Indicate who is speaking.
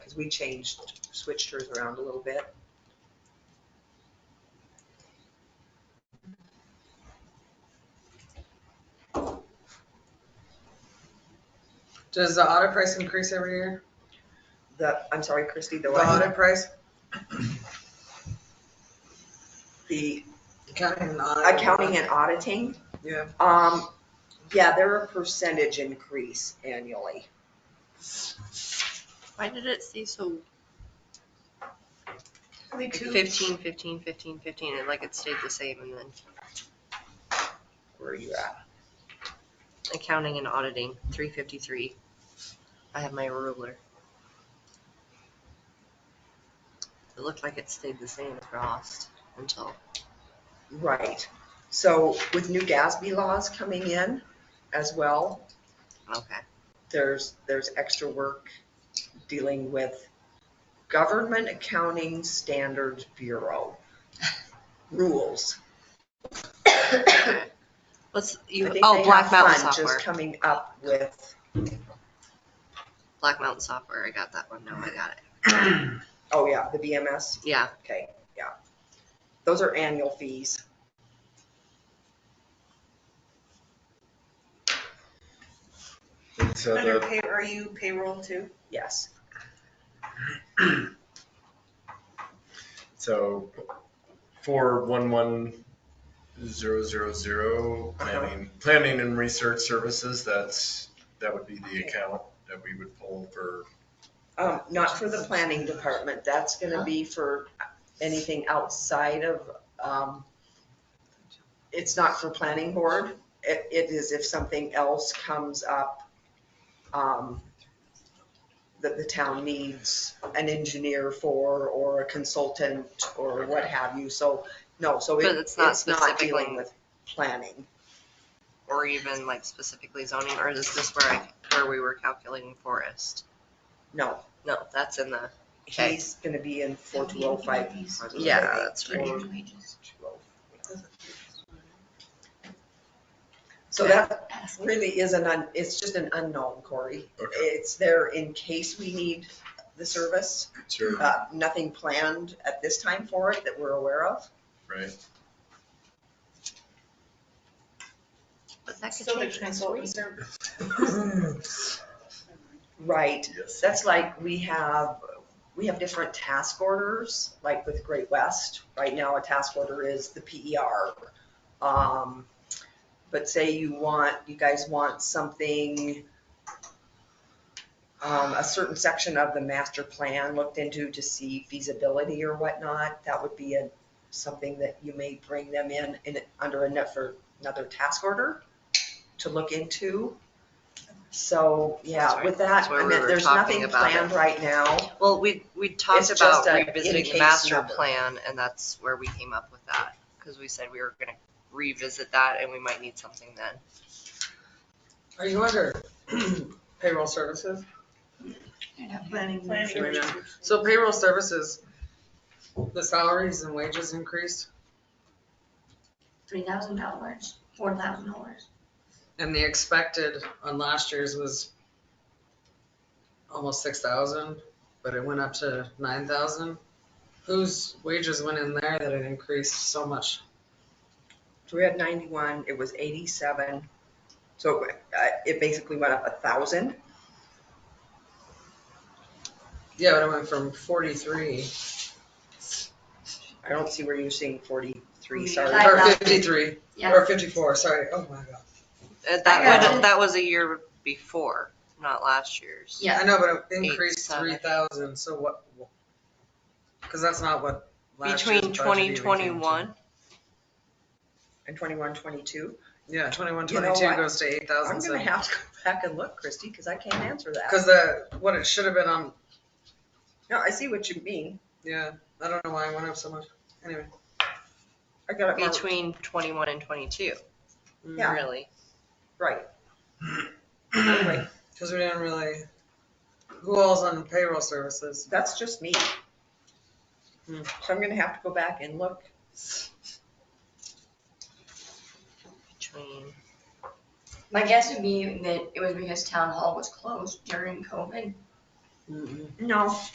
Speaker 1: because we changed, switched hers around a little bit.
Speaker 2: Does the audit price increase every year?
Speaker 1: The, I'm sorry, Christie, the
Speaker 2: The
Speaker 1: what?
Speaker 2: audit price?
Speaker 1: The
Speaker 2: Accounting and audit.
Speaker 1: accounting and auditing,
Speaker 2: Yeah,
Speaker 1: um, yeah, they're a percentage increase annually.
Speaker 3: Why did it say so
Speaker 1: Me
Speaker 3: like, 15, 15, 15, 15, and like it stayed the same and then
Speaker 1: Where are you at?
Speaker 3: accounting and auditing, 353. I have my ruler. It looked like it stayed the same across until,
Speaker 1: Right. So with new GASB laws coming in as well,
Speaker 3: okay.
Speaker 1: there's, there's extra work dealing with Government Accounting Standards Bureau rules.
Speaker 3: Let's,
Speaker 1: I
Speaker 3: you,
Speaker 1: think they
Speaker 3: oh,
Speaker 1: have
Speaker 3: Black Mountain
Speaker 1: fun
Speaker 3: software.
Speaker 1: Just coming up with,
Speaker 3: Black Mountain software, I got that one. No, I got it.
Speaker 1: oh yeah, the BMS,
Speaker 3: Yeah,
Speaker 1: okay, yeah. Those are annual fees.
Speaker 4: So
Speaker 5: Under
Speaker 4: the,
Speaker 5: pay, are you payroll too?
Speaker 1: Yes,
Speaker 4: so four one one zero zero zero planning, planning and research services, that's, that would be the account that we would pull for.
Speaker 1: um, not for the planning department, that's gonna be for anything outside of, um, it's not for planning board, it, it is if something else comes up, um, that the town needs an engineer for, or a consultant, or what have you, so, no, so it-
Speaker 3: But
Speaker 1: it's
Speaker 3: it's not
Speaker 1: not dealing
Speaker 3: specifically-
Speaker 1: with planning.
Speaker 3: or even like specifically zoning, or is this where I, where we were calculating forest?
Speaker 1: No,
Speaker 3: No, that's in the, okay.
Speaker 1: he's gonna be in four two oh five.
Speaker 3: Yeah, that's right.
Speaker 1: So that really is an, un- it's just an unknown, Corey.
Speaker 4: Okay,
Speaker 1: It's there in case we need the service,
Speaker 4: sure,
Speaker 1: uh, nothing planned at this time for it that we're aware of.
Speaker 4: right,
Speaker 3: But that could
Speaker 5: So the
Speaker 3: change next week.
Speaker 5: consultant service.
Speaker 1: Right,
Speaker 4: yes.
Speaker 1: that's like, we have, we have different task orders, like with Great West. Right now, a task order is the PER. Um, But say you want, you guys want something, um, a certain section of the master plan looked into to see feasibility or whatnot, that would be a, something that you may bring them in, in, under another, another task order to look into. So, yeah, with that,
Speaker 3: That's where
Speaker 1: I
Speaker 3: we
Speaker 1: mean,
Speaker 3: were
Speaker 1: there's
Speaker 3: talking
Speaker 1: nothing
Speaker 3: about it.
Speaker 1: planned right now.
Speaker 3: Well, we, we
Speaker 1: It's
Speaker 3: talked
Speaker 1: just
Speaker 3: about
Speaker 1: a in
Speaker 3: revisiting
Speaker 1: case
Speaker 3: the master
Speaker 1: number.
Speaker 3: plan, and that's where we came up with that, because we said we were gonna revisit that, and we might need something then.
Speaker 2: are you under payroll services?
Speaker 5: Planning.
Speaker 2: Sure, yeah. So payroll services, the salaries and wages increased
Speaker 6: three thousand dollars, four thousand dollars.
Speaker 2: and the expected on last year's was almost six thousand, but it went up to nine thousand. Whose wages went in there that it increased so much?
Speaker 1: So we had ninety-one, it was eighty-seven, so uh, it basically went up a thousand.
Speaker 2: Yeah, but it went from forty-three,
Speaker 1: I don't see where you're seeing forty-three,
Speaker 6: I
Speaker 1: sorry.
Speaker 2: or
Speaker 6: thought-
Speaker 2: fifty-three,
Speaker 6: Yeah.
Speaker 2: or fifty-four, sorry, oh my god.
Speaker 3: Uh,
Speaker 6: I
Speaker 3: That,
Speaker 6: got
Speaker 3: would-
Speaker 6: it.
Speaker 3: that was a year before, not last year's.
Speaker 2: I
Speaker 6: Yeah,
Speaker 2: know, but it increased
Speaker 3: Eight,
Speaker 2: three thousand, so what? Cause that's not what last year's
Speaker 3: Between
Speaker 2: budget even
Speaker 3: twenty
Speaker 2: came to.
Speaker 3: twenty-one,
Speaker 1: And twenty-one, twenty-two,
Speaker 2: Yeah, twenty-one,
Speaker 1: You know
Speaker 2: twenty-two
Speaker 1: what?
Speaker 2: goes to eight
Speaker 1: I'm
Speaker 2: thousand,
Speaker 1: gonna have to go back and look, Christie, because I can't answer that.
Speaker 2: cause the, what it should have been on,
Speaker 1: No, I see what you mean,
Speaker 2: yeah, I don't know why it went up so much, anyway.
Speaker 1: I got it marked,
Speaker 3: between twenty-one and twenty-two,
Speaker 1: Yeah.
Speaker 3: really.
Speaker 1: right. Right.
Speaker 2: Cause we didn't really, who all's on payroll services?
Speaker 1: That's just me.
Speaker 2: Hmm.
Speaker 1: So I'm gonna have to go back and look.
Speaker 3: Between,
Speaker 6: my guess would be that it was because town hall was closed during COVID.
Speaker 1: No,